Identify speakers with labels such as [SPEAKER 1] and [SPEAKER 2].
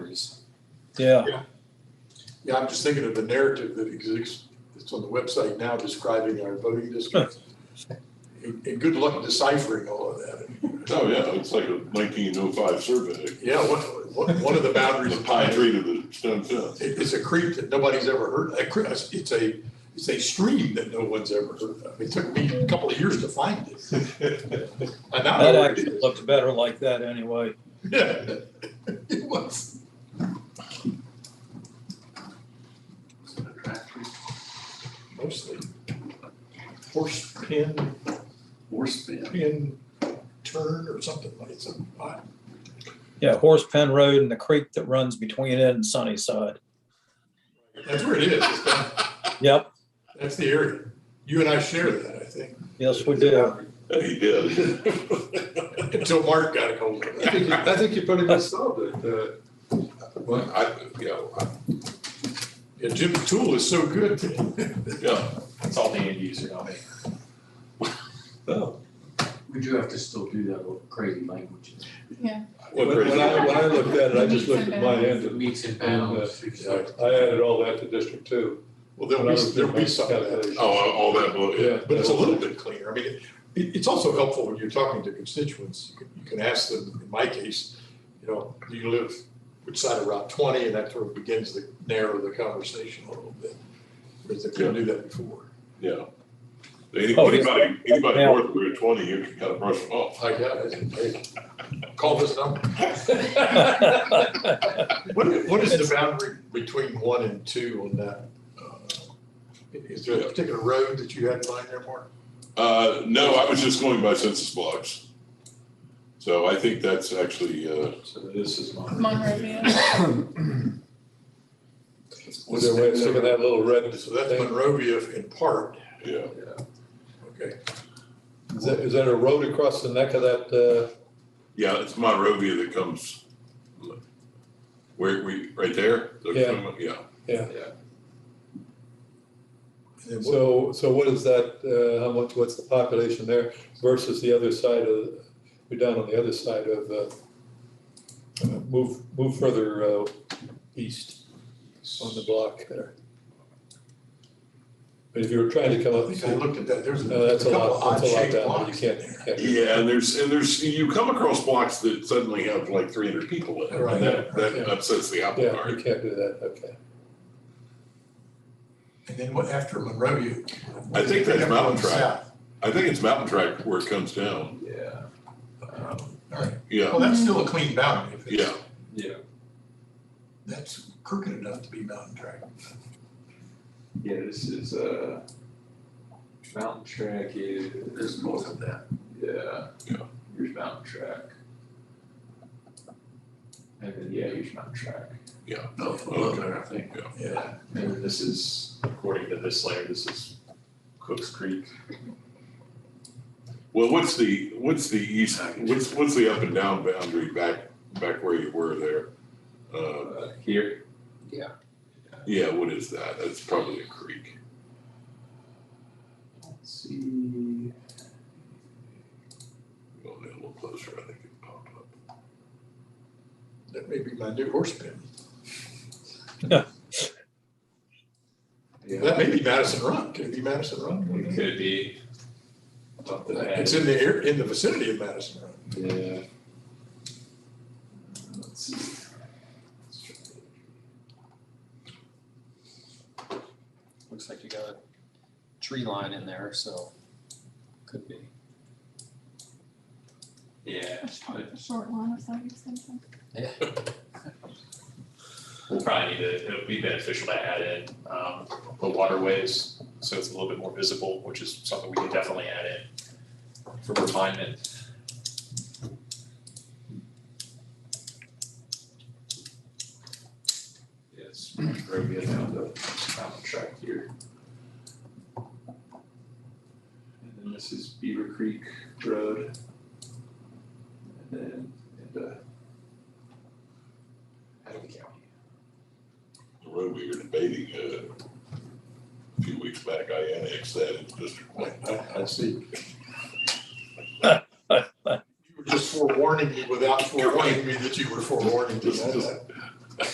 [SPEAKER 1] Yeah,
[SPEAKER 2] Yeah, I'm just thinking of the narrative that exists, that's on the website now describing our voting districts. And, and good luck deciphering all of that.
[SPEAKER 3] Oh, yeah, it's like a nineteen oh five survey,
[SPEAKER 2] Yeah, one, one, one of the boundaries.
[SPEAKER 3] the
[SPEAKER 2] of
[SPEAKER 3] pine tree to the stone fence.
[SPEAKER 2] It, it's a creek that nobody's ever heard, a cre- it's a, it's a stream that no one's ever heard of. It took me a couple of years to find it. And now I
[SPEAKER 1] that
[SPEAKER 2] know where it
[SPEAKER 1] actually
[SPEAKER 2] is.
[SPEAKER 1] looked better like that anyway.
[SPEAKER 2] Yeah. It was. Mostly horse pin,
[SPEAKER 4] Horse bin.
[SPEAKER 2] pin turn or something like, something odd.
[SPEAKER 1] Yeah, Horse Pen Road and the creek that runs between it and Sunnyside.
[SPEAKER 2] That's where it is. It's down-
[SPEAKER 1] Yep,
[SPEAKER 2] That's the area. You and I share that, I think.
[SPEAKER 1] yes, we do.
[SPEAKER 3] He did.
[SPEAKER 2] Until Mark got a hold of
[SPEAKER 5] I think, you-
[SPEAKER 2] it.
[SPEAKER 5] I think you pretty much solved it, uh, well, I, you know, I-
[SPEAKER 2] Yeah, Jim's tool is so good.
[SPEAKER 3] Yeah,
[SPEAKER 6] It's all the end user, not me.
[SPEAKER 4] We do have to still do that with crazy language.
[SPEAKER 3] What
[SPEAKER 5] when,
[SPEAKER 3] crazy
[SPEAKER 5] when I, when I
[SPEAKER 3] language.
[SPEAKER 5] looked at it, I just looked at my end and,
[SPEAKER 4] Meets and
[SPEAKER 5] and, uh,
[SPEAKER 4] bounds.
[SPEAKER 5] I added all that to District Two.
[SPEAKER 2] Well, there'll be, there'll be some of that.
[SPEAKER 3] oh, all that, well, yeah.
[SPEAKER 2] But it's a little bit cleaner. I mean, it, it's also helpful when you're talking to constituents. You can, you can ask them, in my case, you know, do you live which side of Route twenty? And that sort of begins to narrow the conversation a little bit. Because they couldn't do that before.
[SPEAKER 3] Yeah. Any-
[SPEAKER 1] Oh, yeah.
[SPEAKER 3] Anybody, anybody
[SPEAKER 1] Yeah.
[SPEAKER 3] north of Route twenty, you can kind of brush them off.
[SPEAKER 2] I got it. Hey, Call this number. What, what is the boundary between one and two on that? uh, Is there a particular road that you had in mind there, Mark?
[SPEAKER 3] Uh, no, I was just going by census blocks. So I think that's actually, uh,
[SPEAKER 5] So this is mine.
[SPEAKER 7] Monroe Village.
[SPEAKER 5] Was there a way of taking that little red?
[SPEAKER 2] So that's Monrovia in part,
[SPEAKER 3] yeah,
[SPEAKER 2] okay?
[SPEAKER 5] Is that, is that a road across the neck of that, uh,
[SPEAKER 3] yeah, it's Monrovia that comes. Where we, right there?
[SPEAKER 5] Yeah.
[SPEAKER 3] Yeah,
[SPEAKER 2] And
[SPEAKER 5] uh,
[SPEAKER 2] what-
[SPEAKER 5] so, so what is that, uh, how much, what's the population there versus the other side of, you're down on the other side of, uh, uh, move, move further, uh, east on the block there. But if you were trying to come
[SPEAKER 2] I
[SPEAKER 5] up,
[SPEAKER 2] think I looked at that, there's a
[SPEAKER 5] no, uh, that's a
[SPEAKER 2] couple
[SPEAKER 5] lot,
[SPEAKER 2] odd
[SPEAKER 5] that's a lot
[SPEAKER 2] shaped
[SPEAKER 5] down, there. you
[SPEAKER 2] blocks in
[SPEAKER 5] can't,
[SPEAKER 2] there.
[SPEAKER 5] can't.
[SPEAKER 3] Yeah, and there's, and there's, you come across blocks that suddenly have like three hundred people in it,
[SPEAKER 2] Right.
[SPEAKER 3] and that,
[SPEAKER 5] Yeah.
[SPEAKER 3] that upsets the apple
[SPEAKER 5] Yeah, you
[SPEAKER 3] cart.
[SPEAKER 5] can't do that, okay.
[SPEAKER 2] And then what, after Monrovia?
[SPEAKER 3] I think that's Mountain
[SPEAKER 2] Going
[SPEAKER 3] Track. I think it's Mountain Track where it comes down,
[SPEAKER 6] Yeah,
[SPEAKER 2] south. All right,
[SPEAKER 3] yeah,
[SPEAKER 2] well, that's still a clean boundary. if it's-
[SPEAKER 3] yeah,
[SPEAKER 6] yeah,
[SPEAKER 2] That's crooked enough to be Mountain Track.
[SPEAKER 6] yeah, this is, uh, mountain track is.
[SPEAKER 4] There's north of that.
[SPEAKER 6] Yeah.
[SPEAKER 3] Yeah.
[SPEAKER 6] Here's mountain track. And then, yeah, here's mountain track. Oh,
[SPEAKER 3] yeah.
[SPEAKER 4] No,
[SPEAKER 3] Okay.
[SPEAKER 4] I think.
[SPEAKER 2] Yeah,
[SPEAKER 6] And then this is, according to this layer, this is Cook's Creek.
[SPEAKER 3] Well, what's the, what's the east, what's, what's the up and down boundary back, back where you were there? Uh,
[SPEAKER 6] Uh, Here,
[SPEAKER 3] yeah, what is that? That's probably a creek.
[SPEAKER 6] let's see.
[SPEAKER 3] Go a little closer, I think it popped up.
[SPEAKER 2] that may be my new horse pen.
[SPEAKER 6] Yeah,
[SPEAKER 2] That may be Madison Run, could it be Madison
[SPEAKER 6] it
[SPEAKER 2] Run?
[SPEAKER 6] could be. Up the
[SPEAKER 2] It's in the air, in the vicinity of Madison Run.
[SPEAKER 6] Yeah. Let's see. Let's try it.
[SPEAKER 8] Looks like you got a tree line in there, so could be.
[SPEAKER 6] Yeah,
[SPEAKER 7] A Short line of sight or something.
[SPEAKER 6] we'll probably need to, it'll be beneficial to add in, um, the waterways, so it's a little bit more visible, which is something we can definitely add in for refinement. Yes, we're going down the mountain track here. And then this is Beaver Creek Road. And then, and, uh, Adam County.
[SPEAKER 3] The road we were debating, uh, a few weeks back, I annexed that into District One.
[SPEAKER 2] I, I see. You were just forewarning me without forewarning me that you were forewarning me.
[SPEAKER 3] Just, just